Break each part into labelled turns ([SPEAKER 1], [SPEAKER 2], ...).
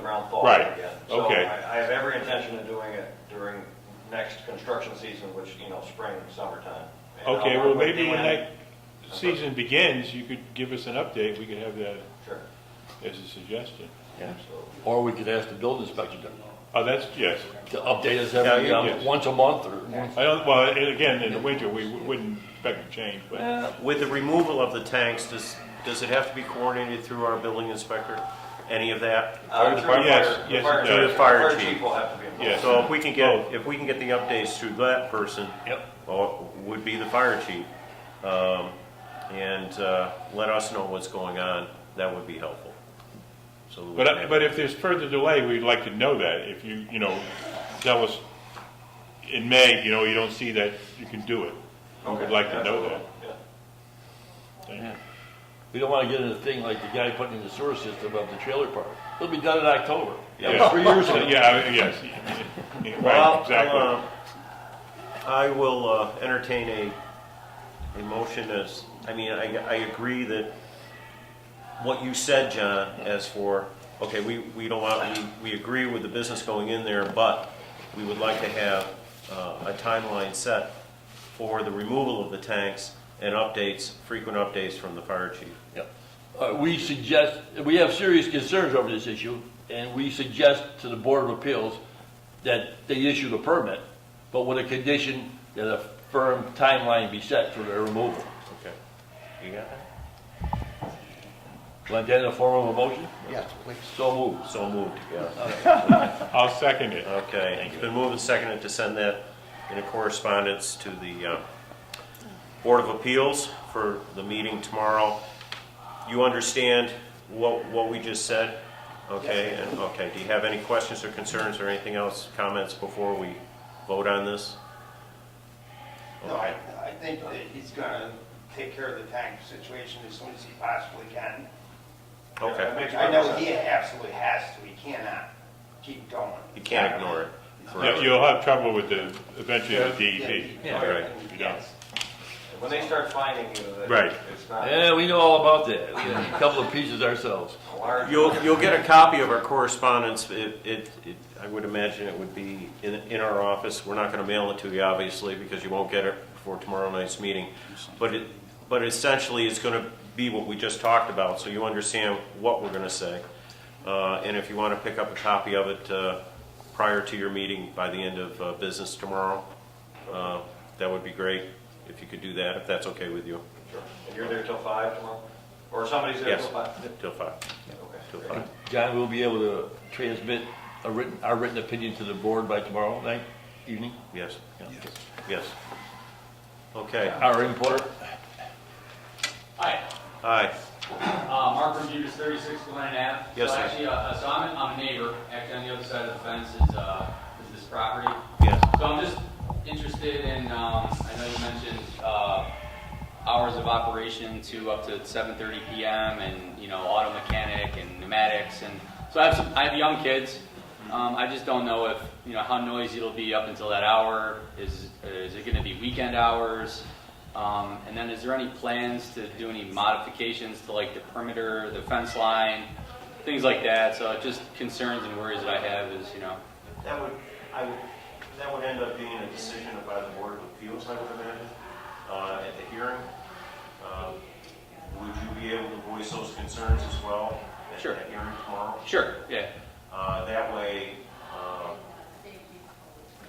[SPEAKER 1] downfall
[SPEAKER 2] Right.
[SPEAKER 1] again. So
[SPEAKER 2] Okay.
[SPEAKER 1] I I have every intention of doing it during next construction season, which, you know, spring, summertime. And I'll
[SPEAKER 2] Okay,
[SPEAKER 1] work
[SPEAKER 2] well,
[SPEAKER 1] with
[SPEAKER 2] maybe when
[SPEAKER 1] Dan.
[SPEAKER 2] that season begins, you could give us an update, we could have that
[SPEAKER 1] Sure,
[SPEAKER 2] as a suggestion.
[SPEAKER 3] Yeah.
[SPEAKER 1] absolutely.
[SPEAKER 3] Or we could ask the building inspector to-
[SPEAKER 2] Oh, that's, yes.
[SPEAKER 3] to update us
[SPEAKER 1] Yeah,
[SPEAKER 3] every,
[SPEAKER 1] you-
[SPEAKER 3] um,
[SPEAKER 2] yes.
[SPEAKER 3] once a month or once.
[SPEAKER 2] I don't, well, and again, in the winter, we wouldn't expect a change, but
[SPEAKER 4] With the removal of the tanks, does, does it have to be coordinated through our building inspector? Any of that?
[SPEAKER 1] Uh, through the
[SPEAKER 2] yes,
[SPEAKER 1] fire- the
[SPEAKER 2] yes,
[SPEAKER 1] fire
[SPEAKER 2] it
[SPEAKER 4] does.
[SPEAKER 1] chief-
[SPEAKER 4] Fire
[SPEAKER 1] Fire
[SPEAKER 4] chief.
[SPEAKER 1] chief will have to be involved.
[SPEAKER 2] Yes.
[SPEAKER 4] So if we can
[SPEAKER 2] Both.
[SPEAKER 4] get, if we can get the updates through that person.
[SPEAKER 3] Yep.
[SPEAKER 4] Well, would be the fire chief. um, And uh, let us know what's going on. That would be helpful. So. we can
[SPEAKER 2] But, uh,
[SPEAKER 4] have-
[SPEAKER 2] but if there's further delay, we'd like to know that, if you, you know, tell us in May, you know, you don't see that, you can do it. We'd like to know that.
[SPEAKER 1] Yeah.
[SPEAKER 3] Yeah. We don't wanna get into a thing like the guy putting in the sewer system of the trailer park. It'll be done in October. That was
[SPEAKER 2] Yeah.
[SPEAKER 3] Three years ago.
[SPEAKER 2] Yeah, I- yes. Yeah,
[SPEAKER 4] Well,
[SPEAKER 2] Right, exactly.
[SPEAKER 4] um, I will uh, entertain a, a motion as, I mean, I, I agree that what you said, John, as for, okay, we, we don't want, we, we agree with the business going in there, but we would like to have uh, a timeline set for the removal of the tanks and updates, frequent updates from the fire chief.
[SPEAKER 3] Yep. Uh, we suggest, we have serious concerns over this issue, and we suggest to the Board of Appeals that they issue the permit, but with a condition that a firm timeline be set for their removal.
[SPEAKER 4] Okay. You got that?
[SPEAKER 3] Want that in the form of a motion?
[SPEAKER 5] Yes, please.
[SPEAKER 3] So moved.
[SPEAKER 4] So moved, yeah.
[SPEAKER 2] I'll second it.
[SPEAKER 4] Okay, it's been moved and seconded to send that in a correspondence to the uh, Board of Appeals for the meeting tomorrow. You understand what, what we just said? Okay, and, okay, do you have any questions or concerns or anything else, comments before we vote on this?
[SPEAKER 6] No, I, I think that he's gonna take care of the tank situation as soon as he possibly can.
[SPEAKER 4] Okay,
[SPEAKER 1] Makes
[SPEAKER 6] I know
[SPEAKER 1] perfect
[SPEAKER 6] he
[SPEAKER 1] sense.
[SPEAKER 6] absolutely has to, he cannot keep going.
[SPEAKER 4] you can't ignore it.
[SPEAKER 2] Yeah,
[SPEAKER 4] Correct.
[SPEAKER 2] You'll have trouble with the, eventually the E DEP.
[SPEAKER 6] Yeah,
[SPEAKER 4] All right.
[SPEAKER 6] he-
[SPEAKER 2] Yeah.
[SPEAKER 6] yes.
[SPEAKER 1] When they start finding you, that
[SPEAKER 4] Right.
[SPEAKER 1] it's not a
[SPEAKER 3] Yeah, we know all about that. We had a couple of pieces ourselves.
[SPEAKER 1] large.
[SPEAKER 4] You'll, you'll get a copy of our correspondence. It, it, it- I would imagine it would be in, in our office. We're not gonna mail it to you, obviously, because you won't get it before tomorrow night's meeting. But it, but essentially, it's gonna be what we just talked about, so you understand what we're gonna say. Uh, and if you wanna pick up a copy of it, uh, prior to your meeting by the end of, uh, business tomorrow, uh, that would be great, if you could do that, if that's okay with you,
[SPEAKER 1] Sure. And you're there till five tomorrow? Or somebody's there
[SPEAKER 4] Yes.
[SPEAKER 1] till five?
[SPEAKER 4] till five,
[SPEAKER 1] Okay.
[SPEAKER 4] till five.
[SPEAKER 3] John, we'll be able to transmit a written, our written opinion to the board by tomorrow night, evening?
[SPEAKER 4] Yes,
[SPEAKER 3] Yeah.
[SPEAKER 4] yes. Okay,
[SPEAKER 3] Our import?
[SPEAKER 7] Hi,
[SPEAKER 4] aye.
[SPEAKER 7] uh, Mark Rebutus, 36 Glen Ave.
[SPEAKER 4] Yes,
[SPEAKER 7] So
[SPEAKER 4] sir.
[SPEAKER 7] actually, uh, so I'm, I'm a neighbor, actually on the other side of the fence is, uh, is this property.
[SPEAKER 4] Yes.
[SPEAKER 7] So I'm just interested in, um, I know you mentioned, uh, hours of operation to up to 7:30 PM and, you know, auto mechanic and pneumatics and, so I have some, I have young kids. Um, I just don't know if, you know, how noisy it'll be up until that hour. Is, is it gonna be weekend hours? Um, and then is there any plans to do any modifications to like the perimeter, the fence line, things like that? So just concerns and worries that I have is, you know,
[SPEAKER 4] That would, I would, that would end up being a decision by the Board of Appeals, I would imagine, uh, at the hearing. Um, Would you be able to voice those concerns as well?
[SPEAKER 7] Sure.
[SPEAKER 4] At the hearing tomorrow?
[SPEAKER 7] sure, yeah.
[SPEAKER 4] Uh, That way, um,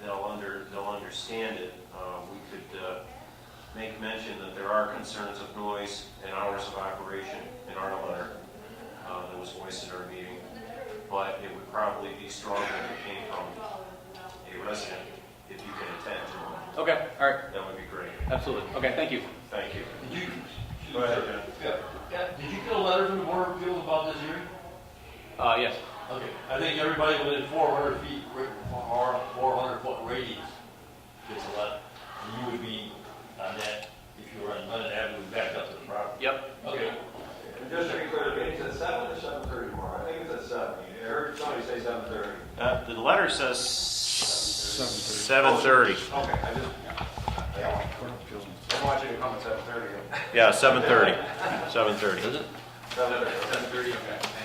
[SPEAKER 4] they'll under, they'll understand it. Uh, We could uh, make mention that there are concerns of noise and hours of operation in our letter uh, that was voiced at our meeting, but it would probably be stronger if it came from a resident, if you can attend tomorrow.
[SPEAKER 7] Okay, all right,
[SPEAKER 4] That would be great.
[SPEAKER 7] absolutely. Okay, thank you.
[SPEAKER 4] Thank you.
[SPEAKER 3] Did you,
[SPEAKER 4] Go ahead, John.
[SPEAKER 3] did you get a letter from the board of appeals about this hearing?
[SPEAKER 7] Uh, yes.
[SPEAKER 3] Okay, I think everybody within four hundred feet, or four hundred foot radius gets a letter. And you would be on that, if you were on London Avenue, back up to the property.
[SPEAKER 7] Yep.
[SPEAKER 3] Okay.
[SPEAKER 1] And just to be clear, the meeting's at seven or seven thirty tomorrow? I think it's at seven. I heard somebody say seven thirty.
[SPEAKER 4] Uh, The letter says 7:30.
[SPEAKER 1] Okay, I just, I want you to come at seven thirty.
[SPEAKER 4] Yeah, 7:30.
[SPEAKER 3] Is it?
[SPEAKER 4] 7:30.
[SPEAKER 1] Seven thirty, okay.
[SPEAKER 7] Seven thirty, okay.